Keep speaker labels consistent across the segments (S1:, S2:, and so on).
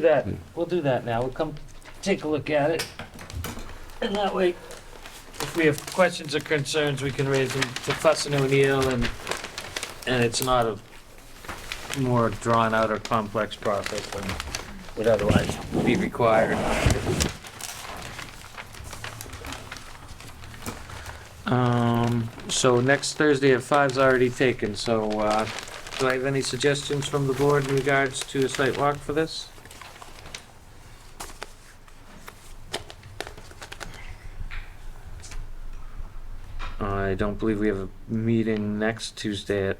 S1: do that, we'll do that now, we'll come take a look at it. And that way, if we have questions or concerns, we can raise them to Fuss and O'Neill and, and it's not a more drawn out or complex process than would otherwise be required. Um, so next Thursday at five's already taken, so, uh, do I have any suggestions from the board in regards to a site walk for this? I don't believe we have a meeting next Tuesday at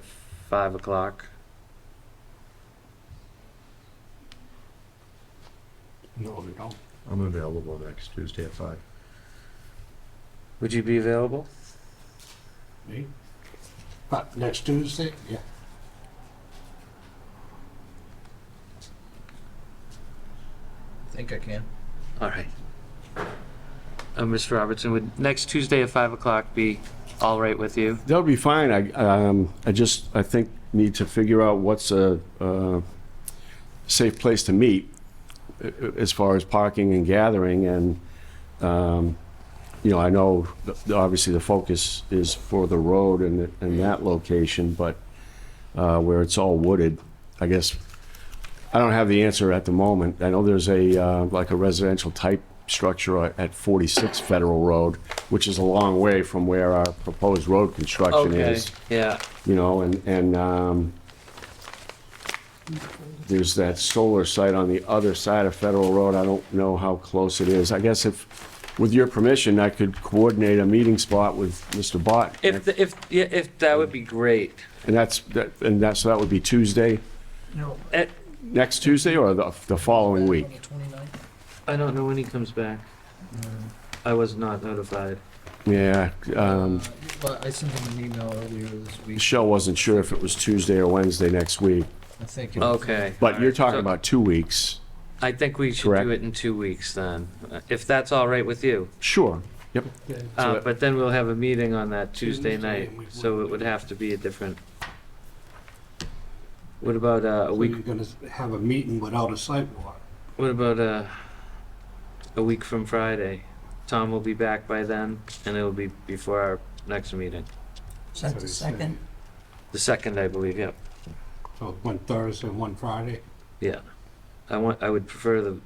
S1: five o'clock.
S2: No, we don't.
S3: I'm available next Tuesday at five.
S1: Would you be available?
S2: Me? But next Tuesday, yeah.
S4: Think I can.
S1: All right. Uh, Mr. Robertson, would next Tuesday at five o'clock be all right with you?
S5: That'll be fine. I, um, I just, I think, need to figure out what's a, uh safe place to meet uh, as far as parking and gathering and, um, you know, I know, th- obviously, the focus is for the road and, and that location, but, uh, where it's all wooded, I guess, I don't have the answer at the moment. I know there's a, uh, like a residential type structure at 46 Federal Road, which is a long way from where our proposed road construction
S1: Okay,
S5: is
S1: yeah,
S5: you know, and, and, um, there's that solar site on the other side of Federal Road. I don't know how close it is. I guess if, with your permission, I could coordinate a meeting spot with Mr. Bott.
S1: if, the- if, yeah, if, that would be great.
S5: And that's, that- and that's, so that would be Tuesday,
S4: No.
S1: Eh,
S5: next Tuesday or the, the following week?
S1: I don't know when he comes back. I was not notified.
S5: Yeah, um,
S4: But I sent him an email earlier this week,
S5: Michelle wasn't sure if it was Tuesday or Wednesday next week,
S4: I think.
S5: Oh.
S4: it-
S1: Okay.
S5: but you're talking
S1: So-
S5: about two weeks.
S1: I think we should
S5: Correct.
S1: do it in two weeks then, uh, if that's all right with you.
S5: Sure. Yep. So
S1: Uh,
S5: that-
S1: but then we'll have a meeting on that Tuesday
S2: Tuesday,
S1: night,
S2: we
S1: so
S2: would-
S1: it would have to be a different. What about uh, a
S2: So
S1: week?
S2: you're gonna have a meeting without a sidewalk.
S1: What about uh, a week from Friday? Tom will be back by then, and it'll be before our next meeting,
S2: That's
S6: the second?
S1: the second, I believe. Yep.
S2: So one Thursday and one Friday.
S1: Yeah. I want. I would prefer the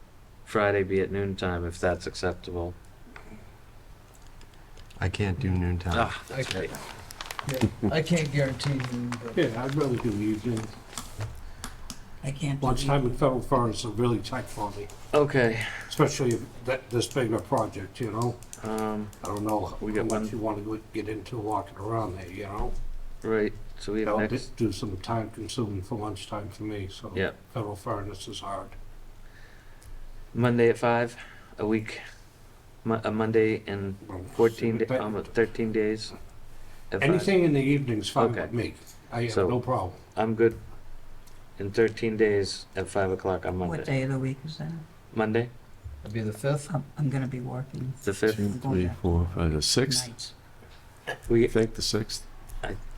S1: Friday be at noon time if that's acceptable.
S3: I can't do noontime.
S1: Ah,
S4: I
S1: that's
S4: can't-
S1: right.
S4: yeah, I can't guarantee you, but
S2: Yeah, I'd really do evening.
S6: I can't. do
S2: Lunchtime
S6: either.
S2: in Federal Forest is really tight for me,
S1: Okay.
S2: especially if that, this big a project, you know?
S1: Um,
S2: I don't know how
S1: We got one.
S2: much you wanna go- get into walking around there, you know?
S1: right. So we have
S2: That'll
S1: next.
S2: just do some time consuming for lunchtime for me, so.
S1: Yeah.
S2: Federal Forest is hard.
S1: Monday at five, a week, Mo- a Monday in
S2: Well,
S1: fourteen, da-
S2: but
S1: almost thirteen days. at five.
S2: Anything in the evening's fine
S1: Okay.
S2: with me. I have
S1: So-
S2: no problem.
S1: I'm good. In thirteen days at five o'clock on
S6: What
S1: Monday.
S6: day of the week is that?
S1: Monday,
S4: it'd be the fifth.
S6: I'm, I'm gonna be working
S1: the fifth.
S5: Two, three, four, five, the sixth,
S6: nights.
S5: I
S1: We,
S5: think, the sixth.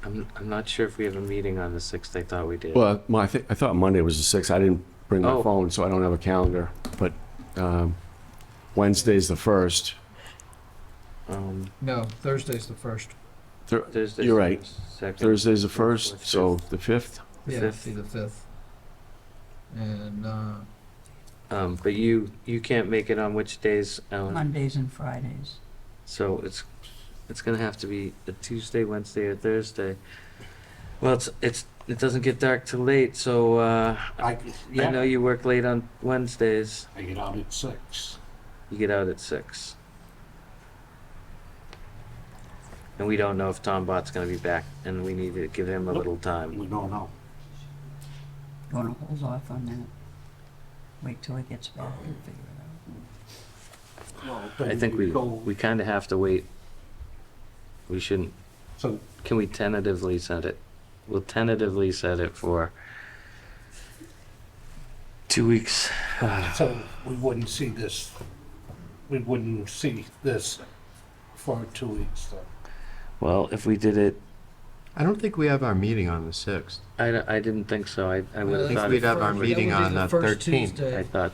S1: I'm, I'm not sure if we have a meeting on the sixth. I thought we did.
S5: Well, my, I, think, I thought Monday was the sixth. I didn't bring my
S1: Oh.
S5: phone, so I don't have a calendar. But um, Wednesday's the first.
S1: Um,
S4: No, Thursday's the first.
S5: Thur-
S1: Thursday.
S5: You're right.
S1: Second.
S5: Thursday's the
S1: Fourth,
S5: first, so the fifth.
S4: Yeah,
S1: Fifth.
S4: it'd be the fifth. And, uh,
S1: Um, but you, you can't make it on which days, Ellen?
S6: Mondays and Fridays.
S1: So it's, it's gonna have to be a Tuesday, Wednesday, or Thursday. Well, it's, it's, it doesn't get dark till late, so, uh,
S2: I,
S1: you know,
S2: yeah,
S1: you work late on Wednesdays.
S2: I get out at six.
S1: You get out at six. And we don't know if Tom Bot's gonna be back, and we need to give him a little time.
S2: We don't know.
S6: You wanna hold off on that? Wait till he gets back and figure it out.
S1: I think we, we kinda have to wait. We shouldn't,
S2: So,
S1: can we tentatively set it? We'll tentatively set it for two weeks.
S2: so we wouldn't see this, we wouldn't see this for two weeks then.
S1: Well, if we did it,
S3: I don't think we have our meeting on the sixth.
S1: I, I didn't think so. I, I
S4: I
S1: would've
S4: think
S1: thought,
S3: we'd
S1: it-
S3: have our
S4: that would
S3: meeting
S4: be
S3: on the
S4: first
S3: 13th.
S1: I
S4: Tuesday.
S1: thought